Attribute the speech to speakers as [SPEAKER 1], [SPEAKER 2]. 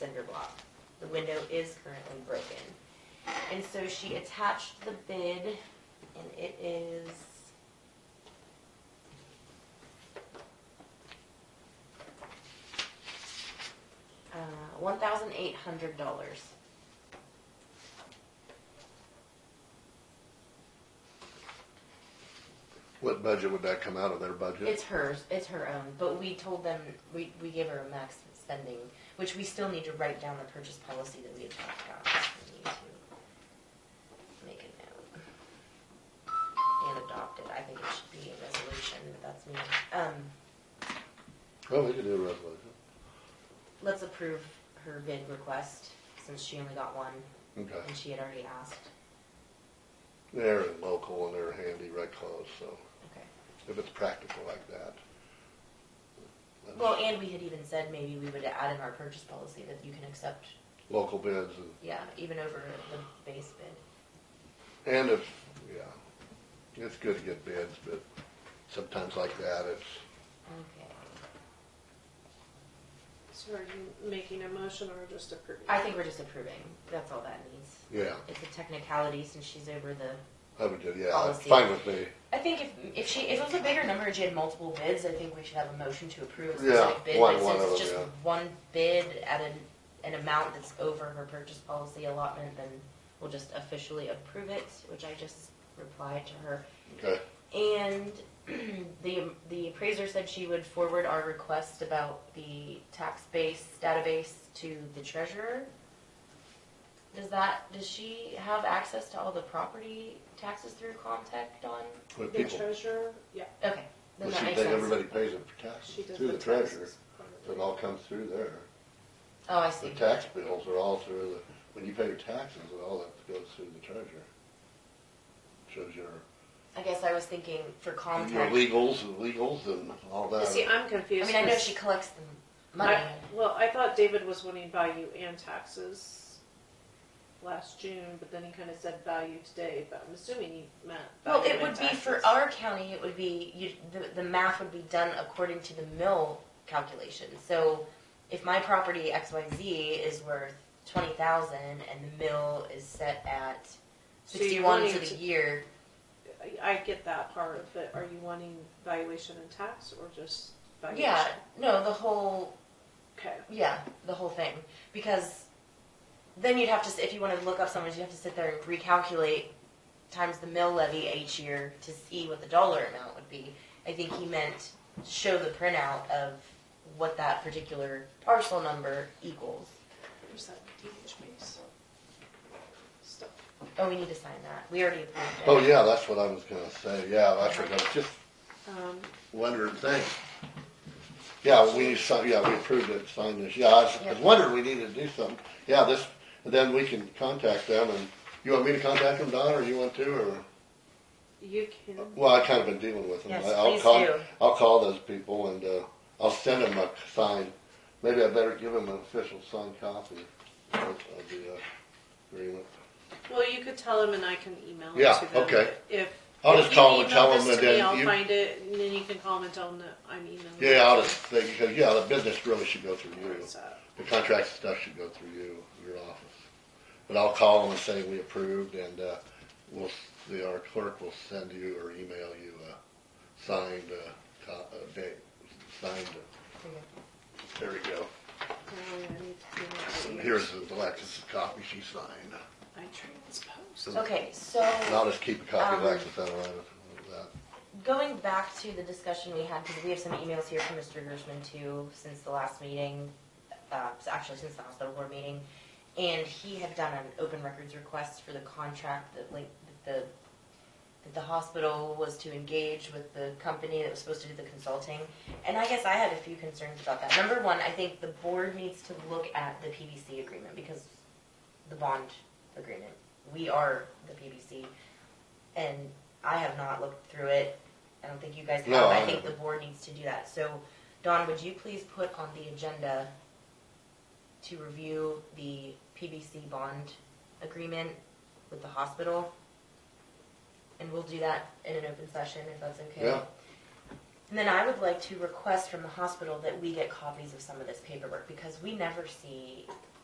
[SPEAKER 1] cinder block. The window is currently broken. And so she attached the bid and it is. Uh, one thousand eight hundred dollars.
[SPEAKER 2] What budget would that come out of their budget?
[SPEAKER 1] It's hers, it's her own, but we told them, we, we gave her a max spending, which we still need to write down the purchase policy that we had talked about. We need to Make a note. And adopt it, I think it should be a resolution, but that's me. Um,
[SPEAKER 2] Well, we could do a resolution.
[SPEAKER 1] let's approve her bid request, since she only got one,
[SPEAKER 2] Okay.
[SPEAKER 1] and she had already asked.
[SPEAKER 2] They're local and they're handy right close, so
[SPEAKER 1] Okay.
[SPEAKER 2] if it's practical like that. that's
[SPEAKER 1] Well, and we had even said maybe we would add in our purchase policy that you can accept,
[SPEAKER 2] Local bids and,
[SPEAKER 1] yeah, even over the base bid.
[SPEAKER 2] and if, yeah, it's good to get bids, but sometimes like that, it's,
[SPEAKER 1] Okay.
[SPEAKER 3] So are you making a motion or just approving?
[SPEAKER 1] I think we're just approving. That's all that needs.
[SPEAKER 2] yeah,
[SPEAKER 1] It's a technicality since she's over the.
[SPEAKER 2] I would do, yeah, it's
[SPEAKER 1] Policy.
[SPEAKER 2] fine with me.
[SPEAKER 1] I think if if she if it was a bigger number and she had multiple bids, I think we should have a motion to approve a
[SPEAKER 2] Yeah,
[SPEAKER 1] specific bid.
[SPEAKER 2] one-
[SPEAKER 1] but
[SPEAKER 2] one
[SPEAKER 1] since
[SPEAKER 2] of
[SPEAKER 1] it's
[SPEAKER 2] them,
[SPEAKER 1] just
[SPEAKER 2] yeah.
[SPEAKER 1] one bid at an an amount that's over her purchase policy allotment, then we'll just officially approve it, which I just replied to her.
[SPEAKER 2] Okay,
[SPEAKER 1] And the the appraiser said she would forward our request about the tax base database to the treasurer. Does that, does she have access to all the property taxes through contact on?
[SPEAKER 2] with
[SPEAKER 3] The
[SPEAKER 2] people,
[SPEAKER 3] treasurer, yeah,
[SPEAKER 1] Okay, then
[SPEAKER 2] but
[SPEAKER 1] that
[SPEAKER 2] she
[SPEAKER 1] makes
[SPEAKER 2] think
[SPEAKER 1] sense.
[SPEAKER 2] everybody pays it for
[SPEAKER 3] she
[SPEAKER 2] taxes
[SPEAKER 3] does
[SPEAKER 2] through
[SPEAKER 3] the
[SPEAKER 2] the treasurer.
[SPEAKER 3] taxes.
[SPEAKER 2] It all comes through there.
[SPEAKER 1] Oh, I
[SPEAKER 2] The
[SPEAKER 1] see.
[SPEAKER 2] tax bills are all through the, when you pay your taxes, it all that goes through the treasurer. Shows your
[SPEAKER 1] I guess I was thinking for
[SPEAKER 2] Your
[SPEAKER 1] contact.
[SPEAKER 2] legals and legals and all that.
[SPEAKER 3] See, I'm
[SPEAKER 1] I
[SPEAKER 3] confused.
[SPEAKER 1] mean, I know
[SPEAKER 3] 'cause
[SPEAKER 1] she collects the money.
[SPEAKER 3] I- Well, I thought David was wanting value and taxes last June, but then he kinda said value today, but I'm assuming he meant
[SPEAKER 1] Well, it
[SPEAKER 3] value and
[SPEAKER 1] would be for
[SPEAKER 3] taxes.
[SPEAKER 1] our county, it would be, you, the, the math would be done according to the mill calculation. So if my property XYZ is worth twenty thousand and the mill is set at
[SPEAKER 3] So you're
[SPEAKER 1] sixty-one for
[SPEAKER 3] wanting
[SPEAKER 1] the
[SPEAKER 3] to-
[SPEAKER 1] year,
[SPEAKER 3] I- I get that part, but are you wanting valuation and tax or just valuation?
[SPEAKER 1] yeah, no, the whole,
[SPEAKER 3] Okay,
[SPEAKER 1] yeah, the whole thing. Because then you'd have to, s- if you wanna look up someone, you'd have to sit there and recalculate times the mill levy each year to see what the dollar amount would be. I think he meant show the printout of what that particular parcel number equals.
[SPEAKER 3] where's that DHB's stuff?
[SPEAKER 1] Oh, we need to sign that. We already approved it.
[SPEAKER 2] Oh, yeah, that's what I was gonna say, yeah, that's what I was just
[SPEAKER 3] Um,
[SPEAKER 2] wondering, thanks. Yeah, we, si- yeah, we approved it, signed this, yeah, I was- I was
[SPEAKER 1] Yeah.
[SPEAKER 2] wondering, we needed to do something, yeah, this, and then we can contact them, and you want me to contact them, Don, or you want to, or?
[SPEAKER 3] you can,
[SPEAKER 2] Well, I kind of been dealing with them.
[SPEAKER 1] Yes,
[SPEAKER 2] I- I'll
[SPEAKER 1] please
[SPEAKER 2] call,
[SPEAKER 1] do.
[SPEAKER 2] I'll call those people and, uh, I'll send them a sign. Maybe I better give them an official signed copy of of the uh, agreement.
[SPEAKER 3] well, you could tell him and I can email it
[SPEAKER 2] Yeah,
[SPEAKER 3] to them.
[SPEAKER 2] okay.
[SPEAKER 3] If.
[SPEAKER 2] I'll
[SPEAKER 3] if
[SPEAKER 2] just
[SPEAKER 3] you
[SPEAKER 2] call 'em and
[SPEAKER 3] email
[SPEAKER 2] tell 'em
[SPEAKER 3] this
[SPEAKER 2] and
[SPEAKER 3] to me,
[SPEAKER 2] then
[SPEAKER 3] I'll
[SPEAKER 2] you-
[SPEAKER 3] find it and then you can call him and tell him that I'm emailing.
[SPEAKER 2] Yeah, I'll just say, because, yeah, the business really should go through you.
[SPEAKER 3] So,
[SPEAKER 2] The contract stuff should go through you, your office. But I'll call them and say we approved and, uh, we'll, the, our clerk will send you or email you a signed, uh, co- uh, date, signed, uh, there we go.
[SPEAKER 3] um, I need to do
[SPEAKER 2] And
[SPEAKER 3] that.
[SPEAKER 2] here's the Alexis's copy she signed.
[SPEAKER 3] I transposed.
[SPEAKER 1] Okay, so.
[SPEAKER 2] And I'll just keep a copy of
[SPEAKER 1] Um,
[SPEAKER 2] Lexus out of that.
[SPEAKER 1] Going back to the discussion we had, because we have some emails here from Mr. Gershman too, since the last meeting, uh, actually since the hospital board meeting, and he had done an open records request for the contract that like, that the, that the hospital was to engage with the company that was supposed to do the consulting. And I guess I had a few concerns about that. Number one, I think the board needs to look at the PBC agreement, because the bond agreement, we are the PBC, and I have not looked through it. I don't think you guys
[SPEAKER 2] No,
[SPEAKER 1] have.
[SPEAKER 2] I
[SPEAKER 1] I think the
[SPEAKER 2] haven't.
[SPEAKER 1] board needs to do that. So, Dawn, would you please put on the agenda to review the PBC bond agreement with the hospital? And we'll do that in an open session if that's okay.
[SPEAKER 2] Yeah.
[SPEAKER 1] And then I would like to request from the hospital that we get copies of some of this paperwork because we never see